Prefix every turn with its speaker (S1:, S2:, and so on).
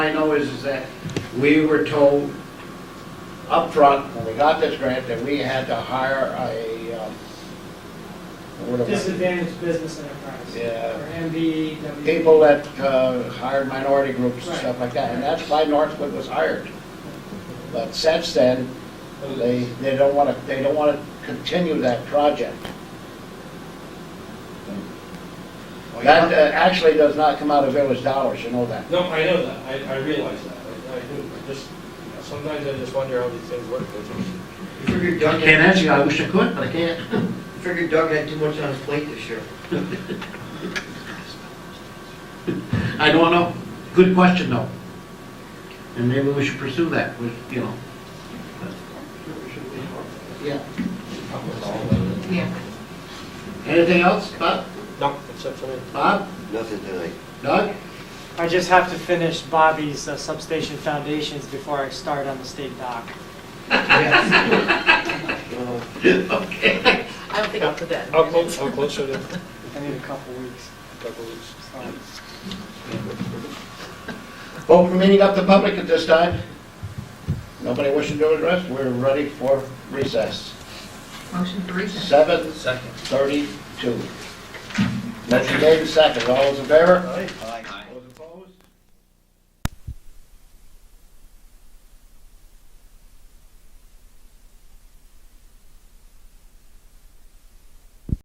S1: is, is that we were told upfront, when we got this grant, that we had to hire a, um, what am I-
S2: Disadvantaged business enterprise.
S1: Yeah.
S2: Or
S3: E,
S2: MBW.
S1: people that uh, hired minority groups and
S2: Right.
S1: stuff like that, and that's why Northwood was hired. But since then, they, they don't want to, they don't want to continue that project.
S4: Well, you
S1: That
S4: know-
S1: uh, actually does not come out of village dollars, you know that.
S5: No, I know that, I, I realize that, I, I do, I just, you know, sometimes I just wonder how these things work.
S4: I Figured
S6: I
S4: Doug
S6: can't
S4: had,
S6: answer you, I wish I could, but I can't.
S4: figured Doug had too much on his plate this year.
S6: I don't know. Good question, though. And maybe we should pursue that with, you know. Yeah.
S7: Yeah.
S6: Anything else, Bob?
S5: No, except for me.
S6: Bob?
S8: Nothing tonight.
S6: Doug?
S3: I just have to finish Bobby's uh, substation foundations before I start on the state dock.
S6: Okay.
S7: I don't think I'll put that in.
S5: How close, how close are they?
S3: I need a couple weeks.
S5: Couple weeks.
S3: so.
S1: Vote for meeting up the public at this time. Nobody wishing to address, we're ready for recess.
S7: Motion for recess.
S1: Seven
S4: Second.
S1: thirty-two. Motion made and seconded, all those in favor?
S4: Aye.